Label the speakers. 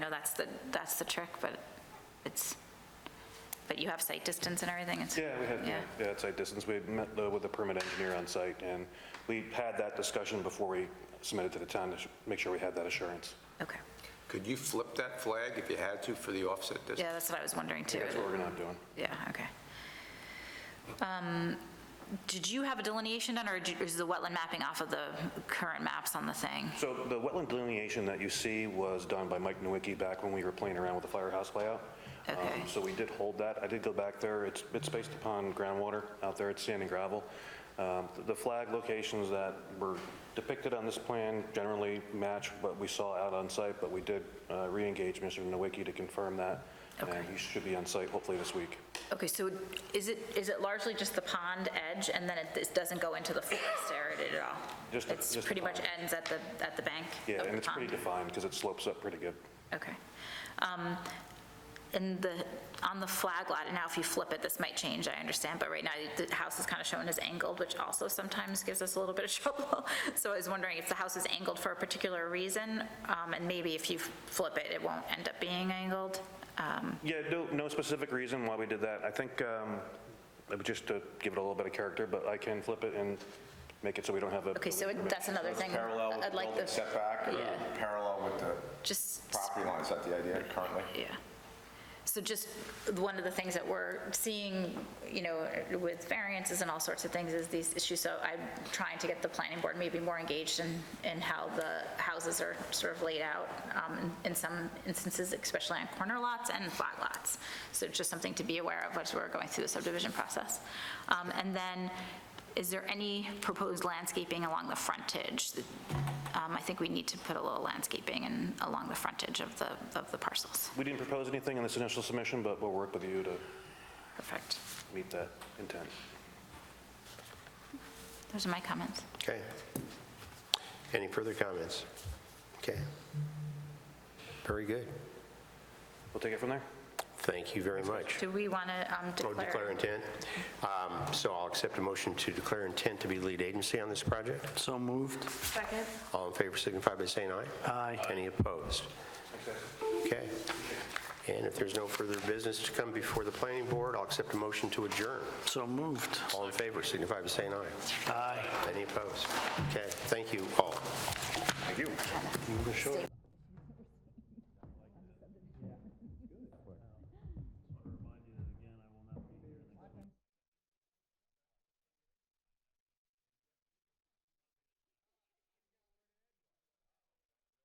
Speaker 1: that's the, that's the trick, but it's, but you have sight distance and everything? it's-
Speaker 2: Yeah, we had,
Speaker 1: Yeah.
Speaker 2: yeah, at site distance, we had met uh, with the permit engineer on site, and we had that discussion before we submitted to the town to sh- make sure we had that assurance.
Speaker 1: Okay.
Speaker 3: Could you flip that flag if you had to for the offset distance?
Speaker 1: Yeah, that's what I was wondering too.
Speaker 2: That's what we're gonna end up doing.
Speaker 1: Yeah, okay. Um, Did you have a delineation done, or did- is the wetland mapping off of the current maps on the thing?
Speaker 2: So the wetland delineation that you see was done by Mike Nowicki back when we were playing around with the firehouse layout. Um,
Speaker 1: Okay.
Speaker 2: So we did hold that. I did go back there. It's, it's based upon groundwater out there. It's sand and gravel. Um, th- The flag locations that were depicted on this plan generally match what we saw out on site, but we did uh, re-engage Mr. Nowicki to confirm that.
Speaker 1: Okay.
Speaker 2: And he should be on site hopefully this week.
Speaker 1: Okay, so is it, is it largely just the pond edge, and then it this doesn't go into the forest area at all?
Speaker 2: Just the-
Speaker 1: It's
Speaker 2: just the
Speaker 1: pretty much
Speaker 2: pond.
Speaker 1: ends at the, at the bank of the
Speaker 2: Yeah,
Speaker 1: pond?
Speaker 2: and it's pretty defined because it slopes up pretty good.
Speaker 1: Okay. Um, And the, on the flag lot, and now if you flip it, this might change, I understand, but right now the house is kind of shown as angled, which also sometimes gives us a little bit of trouble. So I was wondering if the house is angled for a particular reason, um, and maybe if you flip it, it won't end up being angled. Um,
Speaker 2: Yeah, no, no specific reason why we did that. I think, um, it was just to give it a little bit of character, but I can flip it and make it so we don't have a.
Speaker 1: Okay, so it- that's another thing.
Speaker 4: Parallel with the
Speaker 1: I'd like
Speaker 4: building setback or
Speaker 1: Yeah.
Speaker 4: parallel with the
Speaker 1: Just,
Speaker 4: property line, is that the idea currently?
Speaker 1: yeah. So just, one of the things that we're seeing, you know, with variances and all sorts of things is these issues. So I'm trying to get the planning board maybe more engaged in, in how the houses are sort of laid out um, in- in some instances, especially on corner lots and flat lots. So just something to be aware of as we're going through the subdivision process. Um, And then, is there any proposed landscaping along the frontage? Um, I think we need to put a little landscaping in, along the frontage of the, of the parcels.
Speaker 2: We didn't propose anything in this initial submission, but we'll work with you to
Speaker 1: Perfect.
Speaker 2: meet that intent.
Speaker 1: Those are my comments.
Speaker 5: Okay. Any further comments? Okay. Very good.
Speaker 2: We'll take it from there?
Speaker 5: Thank you very much.
Speaker 1: Do we want to
Speaker 5: Oh, declare
Speaker 1: declare?
Speaker 5: intent. Um, So I'll accept a motion to declare intent to be lead agency on this project.
Speaker 6: So moved.
Speaker 1: Second.
Speaker 5: All in favor signify by saying aye.
Speaker 6: Aye.
Speaker 5: Any opposed? Okay. And if there's no further business to come before the planning board, I'll accept a motion to adjourn.
Speaker 6: So moved.
Speaker 5: All in favor signify by saying aye.
Speaker 6: Aye.
Speaker 5: Any opposed? Okay, thank you all.
Speaker 1: Sure.